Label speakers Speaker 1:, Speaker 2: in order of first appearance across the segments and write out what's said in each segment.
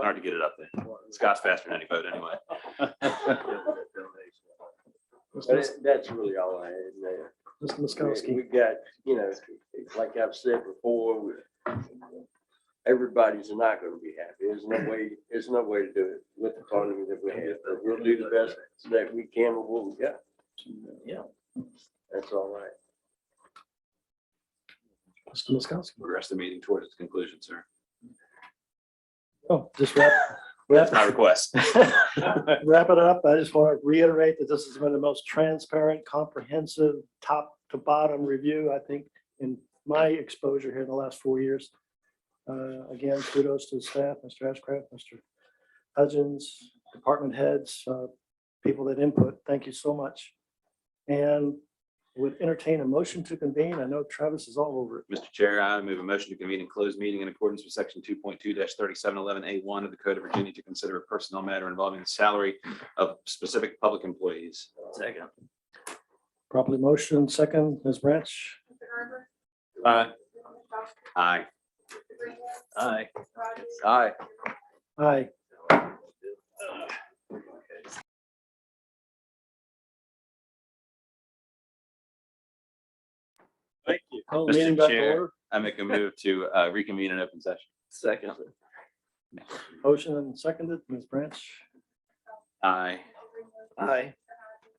Speaker 1: Hard to get it up there. Scott's faster than any boat anyway.
Speaker 2: Mr.
Speaker 3: But that's really all I had there.
Speaker 2: Miskowski.
Speaker 3: We've got, you know, like I've said before, we- everybody's not gonna be happy. There's no way, there's no way to do it with the economy that we have. But We'll do the best that we can with what we got.
Speaker 2: Yeah.
Speaker 3: That's all right.
Speaker 2: Mr. Miskowski.
Speaker 1: Progress the meeting towards its conclusion, sir.
Speaker 2: Oh, just wrap, wrap,
Speaker 1: My request.
Speaker 2: wrap it up. I just want to reiterate that this has been the most transparent, comprehensive, top to bottom review, I think, in my exposure here in the last four years. Uh, Again, kudos to the staff, Mr. Ashcraft, Mr. Hudgens, department heads, uh, people that input. Thank you so much. And would entertain a motion to convene. I know Travis is all over it.
Speaker 1: Mr. Chair, I move a motion to convene and close meeting in accordance with section two point two thirty-seven eleven A one of the Code of Virginia to consider a personnel matter involving the salary of specific public employees. Second.
Speaker 2: Properly motion, second, Ms. Branch.
Speaker 4: Mr. Garber.
Speaker 1: Aye.
Speaker 4: Mr.
Speaker 1: Aye.
Speaker 4: Miskowski. Mr. Greenwood.
Speaker 1: Aye.
Speaker 4: Rogers.
Speaker 1: Aye.
Speaker 2: Aye.
Speaker 1: Thank
Speaker 2: you. Call
Speaker 1: Mr.
Speaker 2: Oh, meeting back to
Speaker 1: Chair.
Speaker 2: order.
Speaker 1: I make a move to uh, reconvene in open session. Second.
Speaker 2: Motion and seconded, Ms. Branch.
Speaker 1: Aye.
Speaker 3: Aye.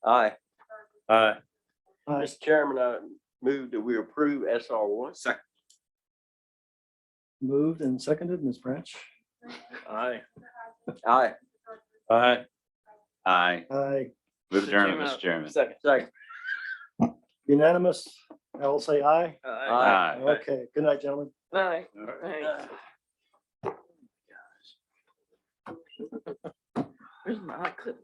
Speaker 1: Aye. Aye.
Speaker 2: Aye.
Speaker 3: Mr. Chairman, I move that we approve SR one.
Speaker 1: Second.
Speaker 2: Moved and seconded, Ms. Branch.
Speaker 3: Aye. Aye.
Speaker 1: Aye. Aye.
Speaker 2: Aye.
Speaker 1: Move adjourned, Mr. Chairman.
Speaker 3: Second. Second.
Speaker 2: Unanimous. I will say aye.
Speaker 3: Aye.
Speaker 1: Aye.
Speaker 2: Okay. Good night, gentlemen.
Speaker 5: Aye. Where's my clip?